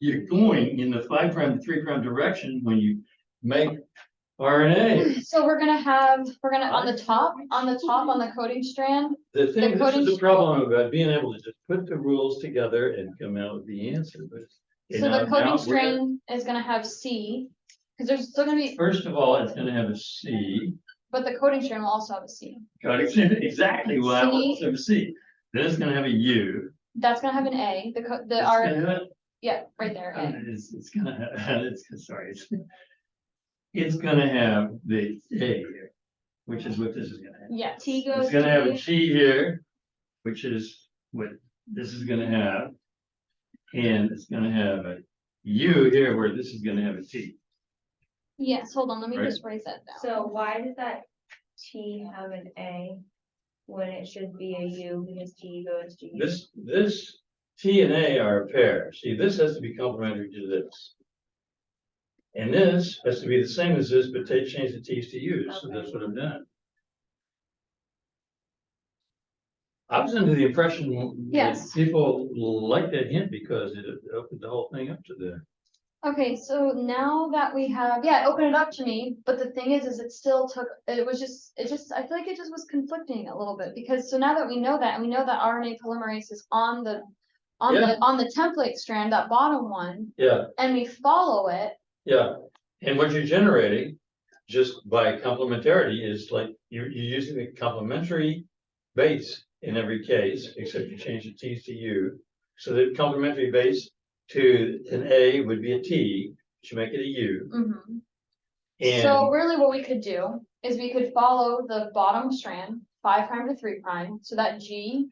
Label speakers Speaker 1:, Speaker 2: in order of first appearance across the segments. Speaker 1: you're going in the five prime, three prime direction when you make RNA.
Speaker 2: So we're gonna have, we're gonna, on the top, on the top, on the coding strand,
Speaker 1: The thing, this is
Speaker 2: coding-
Speaker 1: the problem about being able to just put the rules together and come out with the answer, but. you
Speaker 2: so the
Speaker 1: know, uh, now
Speaker 2: coding
Speaker 1: we're-
Speaker 2: strand is gonna have C. Cause there's still gonna be,
Speaker 1: First of all, it's gonna have a C,
Speaker 2: but the coding strand will also have a C.
Speaker 1: got it, exactly why I want
Speaker 2: C.
Speaker 1: some C. Then it's gonna have a U.
Speaker 2: That's gonna have an A, the co- the
Speaker 1: It's
Speaker 2: R,
Speaker 1: gonna have-
Speaker 2: yeah, right there,
Speaker 1: Uh,
Speaker 2: A.
Speaker 1: It's, it's gonna, have it's, sorry, it's. It's gonna have the A here, which is what this is gonna have.
Speaker 2: Yes.
Speaker 3: T goes
Speaker 1: It's gonna have a
Speaker 3: to
Speaker 1: T here, which is what this is gonna have. And it's gonna have a U here where this is gonna have a T.
Speaker 2: Yes, hold on, let me
Speaker 1: Right.
Speaker 2: just raise that down.
Speaker 3: So why does that T have an A when it should be a U because T goes to U?
Speaker 1: This, this T and A are a pair. See, this has to be complementary to this. And this has to be the same as this, but take, change the T's to U's, so that's what I've done. I was under the impression that
Speaker 2: Yes.
Speaker 1: people liked that hint because it opened the whole thing up to the,
Speaker 2: Okay, so now that we have, yeah, open it up to me, but the thing is, is it still took, it was just, it just, I feel like it just was conflicting a little bit, because so now that we know that, and we know that RNA polymerase is on the. On
Speaker 1: Yeah.
Speaker 2: the, on the template strand, that bottom one,
Speaker 1: yeah,
Speaker 2: and we follow it,
Speaker 1: yeah. And what you're generating, just by complementarity, is like, you're, you're using the complementary base in every case, except you change the T's to U. So the complementary base to an A would be a T, but you make it a U.
Speaker 2: Mhm. So
Speaker 1: And
Speaker 2: really what we could do is we could follow the bottom strand, five prime to three prime, so that G.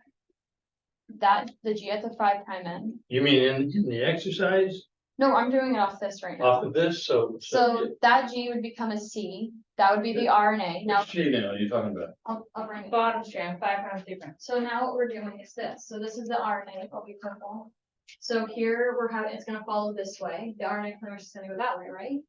Speaker 2: That, the G at the five prime end,
Speaker 1: you mean in, in the exercise
Speaker 2: no, I'm doing it off this right now.
Speaker 1: off of this, so.
Speaker 2: So that G would become a C, that would be the RNA, now,
Speaker 1: Which T now are you talking about?
Speaker 2: I'll, I'll bring it.
Speaker 3: Bottom strand, five prime, three prime.
Speaker 2: So now what we're doing is this, so this is the RNA, it'll be purple. So here we're having, it's gonna follow this way, the RNA polymerase is gonna go that way, right?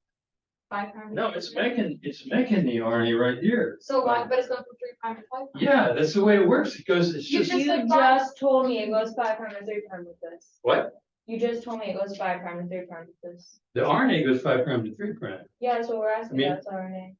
Speaker 2: Five prime. to
Speaker 1: No,
Speaker 2: three
Speaker 1: it's
Speaker 2: prime.
Speaker 1: making, it's making the RNA right here.
Speaker 2: So why, but it's going from three prime to five prime.
Speaker 1: Yeah, that's the way it works. It goes, it's
Speaker 2: You
Speaker 1: just,
Speaker 2: just said
Speaker 3: You
Speaker 2: five.
Speaker 3: just told me it goes five prime to three prime with this.
Speaker 1: what?
Speaker 3: You just told me it goes five prime to three prime with this.
Speaker 1: The RNA goes five prime to three prime.
Speaker 3: Yeah, that's what we're asking,
Speaker 1: Me-
Speaker 3: that's RNA.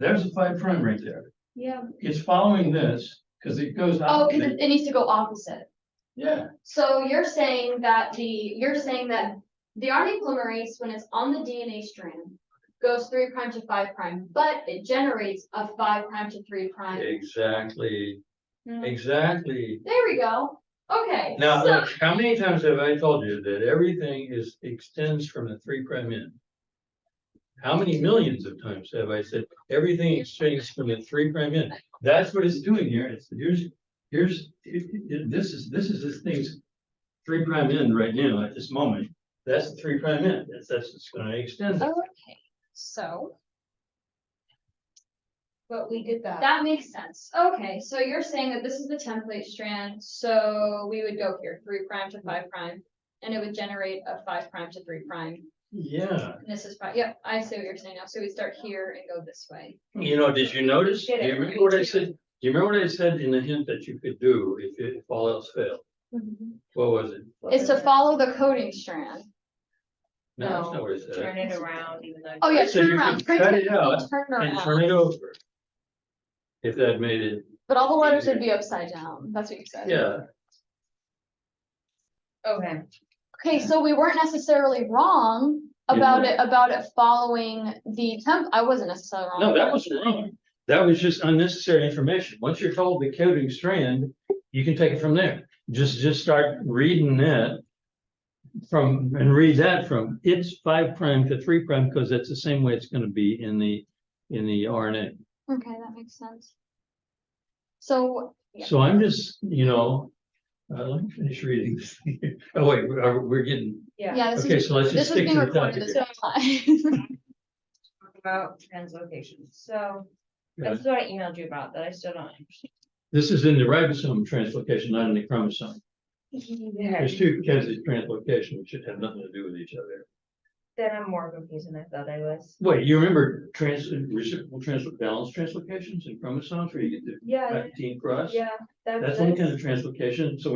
Speaker 1: There's a five prime right there.
Speaker 3: Yeah.
Speaker 1: It's following this, because it goes.
Speaker 2: Oh,
Speaker 1: out.
Speaker 2: cause it, it needs to go opposite.
Speaker 1: Yeah,
Speaker 2: So you're saying that the, you're saying that the RNA polymerase, when it's on the DNA strand, goes three prime to five prime, but it generates a five prime to three prime.
Speaker 1: exactly,
Speaker 3: Hmm.
Speaker 1: exactly.
Speaker 2: There we go. Okay.
Speaker 1: Now,
Speaker 2: so-
Speaker 1: look, how many times have I told you that everything is extends from the three prime end? How many millions of times have I said everything extends from the three prime end? That's what it's doing here. It's here's, here's, it- it- this is, this is this thing's three prime end right now at this moment. That's the three prime end. That's, that's it's gonna extend. it.
Speaker 2: Okay, so
Speaker 3: But we did
Speaker 2: that makes sense. Okay, so you're saying that this is the template strand, so we would go here, three prime to five prime. And it would generate a five prime to three prime.
Speaker 1: Yeah.
Speaker 2: And this is five, yep, I see what you're saying now. So we start here and go this way.
Speaker 1: You know, did you notice? Do
Speaker 3: Did
Speaker 1: you
Speaker 3: it,
Speaker 1: remember what Hmm. I
Speaker 3: right?
Speaker 1: said? Do you remember what I said in the hint that you could do if it- if all else failed? What was it?
Speaker 2: Is to follow the coding strand.
Speaker 1: No, that's not
Speaker 3: No,
Speaker 1: what I said.
Speaker 3: turn it around even though.
Speaker 2: Oh, yeah,
Speaker 1: So
Speaker 2: turn
Speaker 1: you
Speaker 2: around.
Speaker 1: could cut it
Speaker 2: Turn
Speaker 1: out And turn
Speaker 2: around.
Speaker 1: it over. If that made it,
Speaker 2: But all the letters would be upside down. That's what you said.
Speaker 1: yeah,
Speaker 3: Okay.
Speaker 2: Okay, so we weren't necessarily wrong
Speaker 1: You
Speaker 2: about
Speaker 1: weren't.
Speaker 2: it, about it following the temp, I wasn't necessarily wrong.
Speaker 1: no,
Speaker 2: about
Speaker 1: that
Speaker 2: it.
Speaker 1: wasn't wrong. That was just unnecessary information. Once you're told the coding strand, you can take it from there. Just, just start reading that. From, and read that from, it's five prime to three prime, because that's the same way it's gonna be in the, in the RNA.
Speaker 2: Okay, that makes sense. So, Yeah.
Speaker 1: So I'm just, you know, uh, let me finish reading this. thing here. Oh, wait, we're, we're getting,
Speaker 3: Yeah,
Speaker 2: yeah, this
Speaker 1: okay,
Speaker 2: is,
Speaker 1: so let's
Speaker 2: this
Speaker 1: just
Speaker 2: is
Speaker 1: stick
Speaker 2: being
Speaker 1: to the
Speaker 2: recorded
Speaker 1: topic.
Speaker 2: this time.
Speaker 3: talk about translocation, so
Speaker 1: Yeah.
Speaker 3: this is what I emailed you about that I still don't
Speaker 1: This is in the ribosome translocation, not in the chromosome.
Speaker 3: understand.
Speaker 1: There's two kinds of translocation, which should have nothing to do with each other.
Speaker 3: Then I'm more confused than I thought I was.
Speaker 1: Wait, you remember trans, reciprocal transfer balance translocations and chromosomes where you get the
Speaker 3: Yeah,
Speaker 2: Uh,
Speaker 1: nineteen cross?
Speaker 3: yeah, that-
Speaker 1: That's one
Speaker 3: that's-
Speaker 1: kind of translocation, so